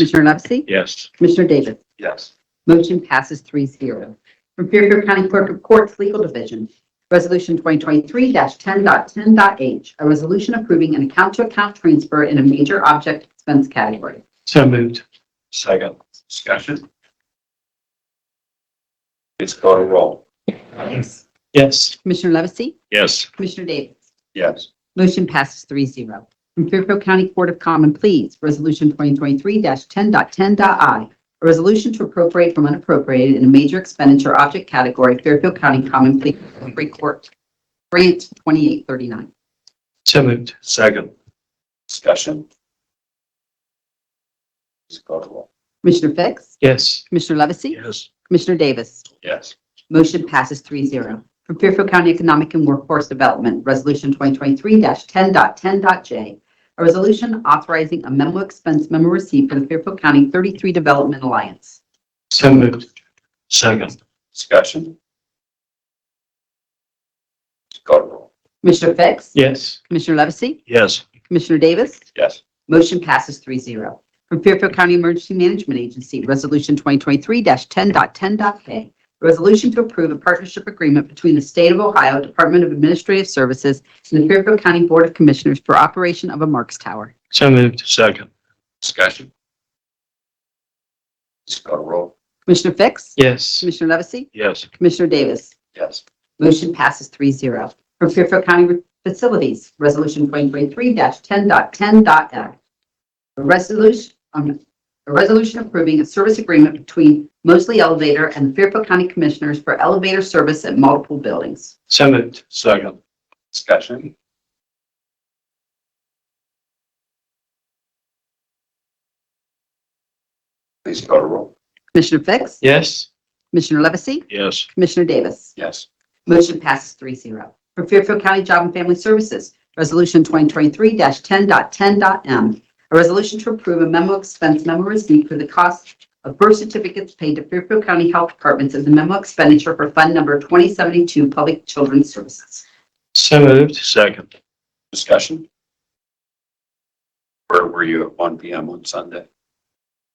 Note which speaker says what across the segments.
Speaker 1: Commissioner Levesey?
Speaker 2: Yes.
Speaker 1: Commissioner Davis?
Speaker 2: Yes.
Speaker 1: Motion passes 3-0. From Fairfield County Clerk of Courts Legal Division, Resolution 2023-10.10.h, a resolution approving an account-to-account transfer in a major object expense category.
Speaker 3: So moved.
Speaker 2: Second. Discussion. Please call the roll.
Speaker 3: Yes.
Speaker 1: Commissioner Levesey?
Speaker 2: Yes.
Speaker 1: Commissioner Davis?
Speaker 2: Yes.
Speaker 1: Motion passes 3-0. From Fairfield County Court of Common Pleas, Resolution 2023-10.10.i, a resolution to appropriate from unappropriated in a major expenditure object category, Fairfield County Common Pleas Free Court Grant 2839.
Speaker 3: So moved.
Speaker 2: Second. Discussion. Please call the roll.
Speaker 1: Commissioner Fix?
Speaker 3: Yes.
Speaker 1: Commissioner Levesey?
Speaker 2: Yes.
Speaker 1: Commissioner Davis?
Speaker 2: Yes.
Speaker 1: Motion passes 3-0. From Fairfield County Economic and Workforce Development, Resolution 2023-10.10.j, a resolution authorizing a memo expense memo receipt for the Fairfield County 33 Development Alliance.
Speaker 3: So moved.
Speaker 2: Second. Discussion. Please call the roll.
Speaker 1: Commissioner Fix?
Speaker 3: Yes.
Speaker 1: Commissioner Levesey?
Speaker 2: Yes.
Speaker 1: Commissioner Davis?
Speaker 2: Yes.
Speaker 1: Motion passes 3-0. From Fairfield County Emergency Management Agency, Resolution 2023-10.10.k, a resolution to approve a partnership agreement between the State of Ohio Department of Administrative Services and the Fairfield County Board of Commissioners for operation of a Marks Tower.
Speaker 3: So moved.
Speaker 2: Second. Discussion. Please call the roll.
Speaker 1: Commissioner Fix?
Speaker 3: Yes.
Speaker 1: Commissioner Levesey?
Speaker 2: Yes.
Speaker 1: Commissioner Davis?
Speaker 2: Yes.
Speaker 1: Motion passes 3-0. From Fairfield County Facilities, Resolution 2023-10.10.f. A resolution, um, a resolution approving a service agreement between Mosley Elevator and the Fairfield County Commissioners for elevator service at multiple buildings.
Speaker 3: So moved.
Speaker 2: Second. Discussion. Please call the roll.
Speaker 1: Commissioner Fix?
Speaker 3: Yes.
Speaker 1: Commissioner Levesey?
Speaker 2: Yes.
Speaker 1: Commissioner Davis?
Speaker 2: Yes.
Speaker 1: Motion passes 3-0. For Fairfield County Job and Family Services, Resolution 2023-10.10.m. A resolution to approve a memo expense memo receipt for the cost of birth certificates paid to Fairfield County Health Departments as a memo expenditure for Fund Number 2072 Public Children's Services.
Speaker 3: So moved.
Speaker 2: Second. Discussion. Where were you at one PM on Sunday?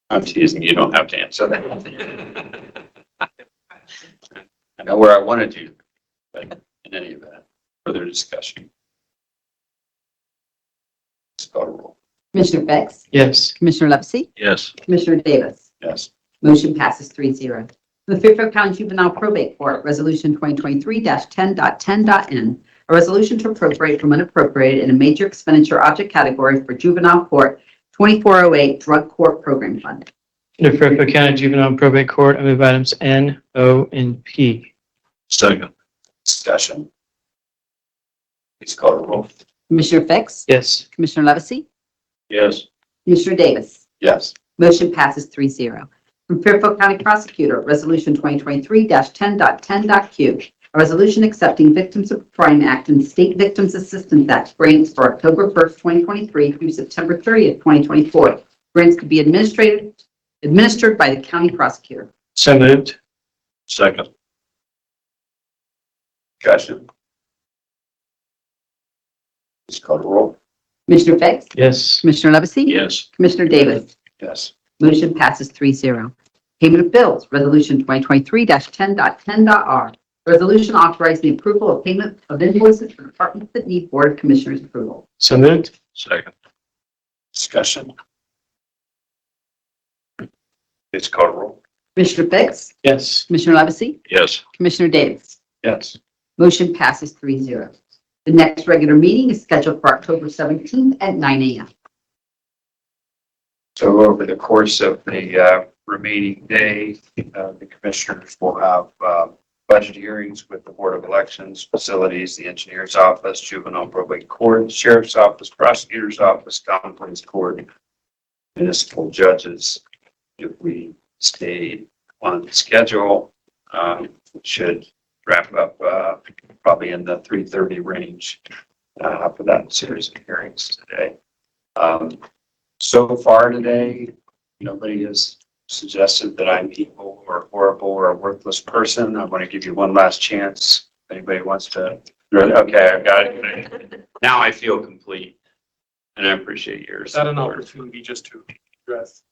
Speaker 2: I'm teasing, you don't have to answer that. I know where I wanted you, but in any event, further discussion. Please call the roll.
Speaker 1: Commissioner Fix?
Speaker 3: Yes.
Speaker 1: Commissioner Levesey?
Speaker 2: Yes.
Speaker 1: Commissioner Davis?
Speaker 2: Yes.
Speaker 1: Motion passes 3-0. The Fairfield County Juvenile Probate Court, Resolution 2023-10.10.n, a resolution to appropriate from unappropriated in a major expenditure object category for juvenile court 2408 Drug Court Program Fund.
Speaker 3: Under Fairfield County Juvenile and Probate Court, I move items N, O, and P.
Speaker 2: Second. Discussion. Please call the roll.
Speaker 1: Commissioner Fix?
Speaker 3: Yes.
Speaker 1: Commissioner Levesey?
Speaker 2: Yes.
Speaker 1: Commissioner Davis?
Speaker 2: Yes.
Speaker 1: Motion passes 3-0. From Fairfield County Prosecutor, Resolution 2023-10.10.Q, a resolution accepting Victims of Crime Act and State Victims Assistance Act grants for October 1st, 2023 through September 30th, 2024. Grants could be administrated, administered by the county prosecutor.
Speaker 3: So moved.
Speaker 2: Second. Discussion. Please call the roll.
Speaker 1: Commissioner Fix?
Speaker 3: Yes.
Speaker 1: Commissioner Levesey?
Speaker 2: Yes.
Speaker 1: Commissioner Davis?
Speaker 2: Yes.
Speaker 1: Motion passes 3-0. Payment of bills, Resolution 2023-10.10.R. Resolution authorizing the approval of payment of invoices for departments that need Board of Commissioners approval.
Speaker 3: So moved.
Speaker 2: Second. Discussion. Please call the roll.
Speaker 1: Commissioner Fix?
Speaker 3: Yes.
Speaker 1: Commissioner Levesey?
Speaker 2: Yes.
Speaker 1: Commissioner Davis?
Speaker 2: Yes.
Speaker 1: Motion passes 3-0. The next regular meeting is scheduled for October 17th at 9 a.m.
Speaker 2: So over the course of the uh, remaining day, uh, the commissioners will have uh, budget hearings with the Board of Elections, Facilities, the Engineer's Office, Juvenile Probate Court, Sheriff's Office, Prosecutor's Office, Common Pleas Court, municipal judges. If we stay on schedule, um, should wrap up uh, probably in the 3:30 range uh, for that series of hearings today. Um, so far today, nobody has suggested that I'm evil or horrible or a worthless person. I want to give you one last chance. If Anybody wants to? Okay, I've got it. Now I feel complete and I appreciate yours.
Speaker 4: Is that an opportunity just to address